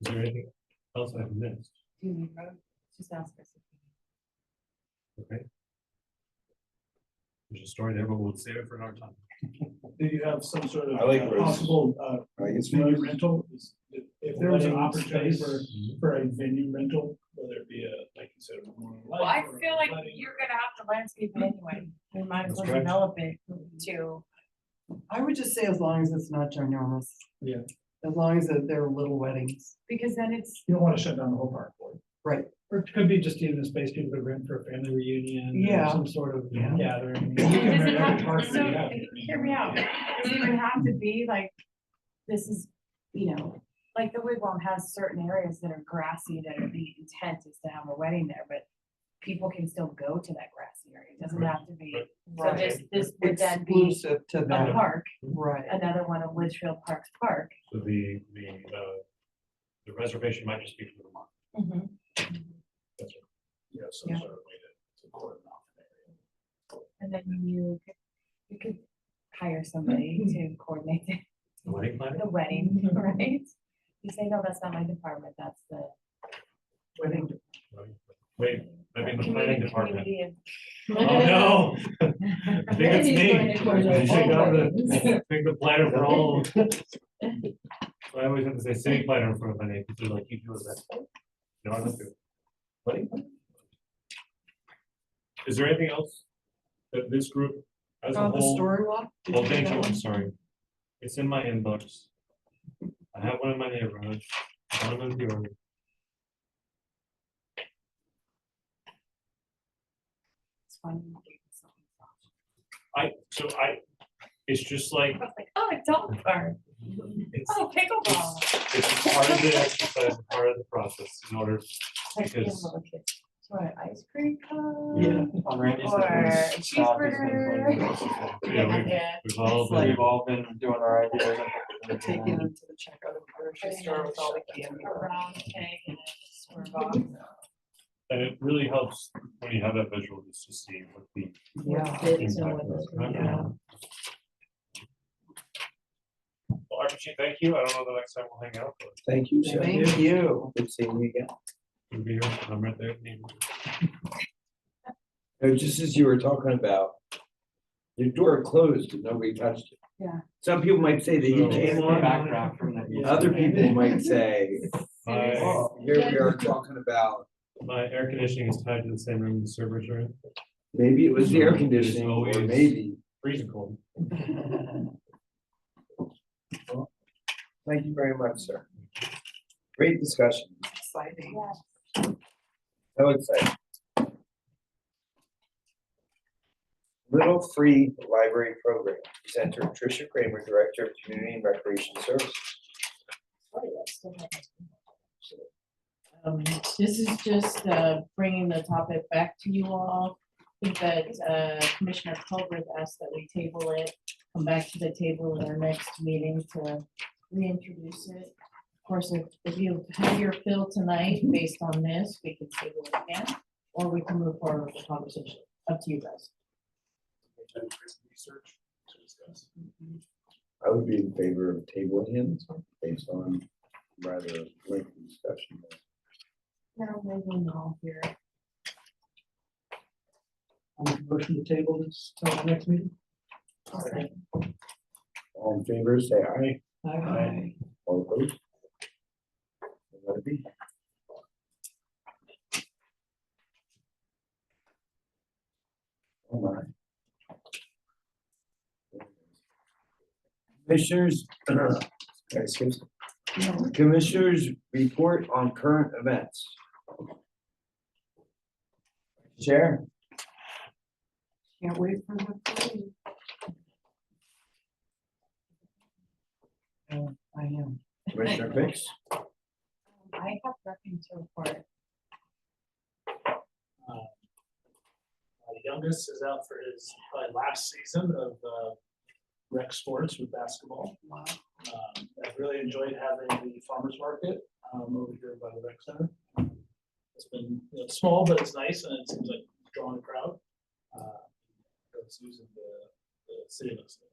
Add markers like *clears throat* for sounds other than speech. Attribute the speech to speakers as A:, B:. A: Is there anything else I've missed?
B: Just ask us.
A: Okay. There's a story there, but we'll save it for another time.
C: Do you have some sort of
D: I like
C: uh,
D: Rose's.
C: possible, uh,
D: Right, it's
C: venue
D: Rose's.
C: rental? Is- if- If there was an
D: Wedding
C: opportunity for,
D: space.
C: for a venue rental, whether it be a, like you said, a memorial
B: Well, I
C: life or a
B: feel like
C: wedding.
B: you're gonna have to landscape it anyway, we might as
A: That's
B: well
A: correct.
B: develop it to,
E: I would just say as long as it's not ginormous.
C: Yeah.
E: As long as that they're little weddings.
B: because then it's,
C: You don't wanna shut down the whole park for it.
E: Right.
C: Or it could be just even a space people could rent for a family reunion. or
E: Yeah.
C: Some sort of
E: Yeah.
C: gathering.
B: it
C: You can
B: doesn't
C: rent every
B: have,
C: park
B: so,
C: we have.
B: hear me out, it doesn't even have to be like, this is, you know, like the wigwam has certain areas that are grassy that are the intent is to have a wedding there, but people can still go to that grassy area, it doesn't have to be, so this, this would then be
E: Exclusive to
B: a
E: that,
B: park,
E: right.
B: another one of Litchfield Parks Park.
A: So the, the, uh, the reservation might just be for the month.
C: Yeah, some
B: Yeah.
C: sort of way to, to coordinate.
B: And then you, could- you could hire somebody
A: Mm-hmm.
B: to coordinate *laughs* the-
A: The wedding planner?
B: the wedding,
A: Mm-hmm.
B: right? You say, no, that's not my department, that's the.
E: Wedding
A: Wait, I mean, the planning
B: community-
A: department.
B: community of-
A: Oh, no. I think it's me. I think I'm the- I think the planner for all. I always have to say city planner in front of my name, because they're like, you do it that. way." No, I don't do. it. Wedding planner? Is there anything else that this group as a
E: On the
A: whole?
E: story walk? did
A: Well,
E: you do
A: thank
E: that
A: you,
E: one?
A: I'm sorry. It's in my inbox. I have one in my neighborhood, one in the yard.
B: It's funny.
A: I, so I, it's just like,
B: I was like, oh, adult park,
A: it's,
B: oh, pickleball.
A: it's part of the exercise, part of the process in order,
B: Like, you know,
A: Because-
B: little kids, Do you want an ice cream
D: Yeah.
B: cone?
D: On Randy's
B: Or
D: defense, South has been
B: cheeseburger.
D: playing
A: you know, we-
B: Yeah.
A: we've all
E: It's like-
A: been.
D: We've all been doing our ideas.
E: We're Taking them to the checkout and grocery store with all the candy.
B: A round egg and a square box.
A: And it really helps when you have that visual, just to see what the
E: Yeah.
A: impact was. right? Well, RPG, thank you, I don't know the next time we'll hang out, but
D: Thank you,
E: Thank you.
D: Good seeing you again.
A: we'll be here, I'm right there.
D: No, just as you were talking about, your door closed and nobody touched it.
B: Yeah.
D: Some people might say that you
A: So-
D: came on,
F: background from the.
D: other people might say,
A: My,
D: oh, here we are talking about,
A: my air conditioning is tied to the same room the servers are in.
D: maybe it was the air conditioning, or
A: Always.
D: maybe.
A: freezing cold.
E: *laughs*
D: Thank you very much, sir. Great discussion,
E: Exciting.
B: Yeah.
D: so exciting. Little Free Library Program, presenter Tricia Kramer, Director of Community and Recreation Services.
G: Um, this is just, uh, bringing the topic back to you all. I think that, uh, Commissioner Colbert asked that we table it, come back to the table in our next meeting to reintroduce it. Of course, if, if you have your fill tonight based on this, we can table it again, or we can move forward with the conversation, up to you guys.
C: Research to discuss.
D: I would be in favor of tabling him based on rather lengthy discussion.
B: Now, maybe all here.
C: Motion to table this till the next meeting?
D: All in favor, say aye.
C: Aye.
D: All opposed? Let it be. Oh my. Commissioners, *clears throat* excuse me. Commissioners, report on current events. Chair?
E: Can't wait for the parade. Yeah, I am.
D: Commissioner Fix?
B: I have nothing to report.
C: My youngest is out for his uh, last season of uh, rec sports with basketball.
E: Wow.
C: Um, I've really enjoyed having the farmer's market um, over here by the rec center. It's been, you know, small, but it's nice and it seems like drawing a crowd. Uh, It's using the, the city looks.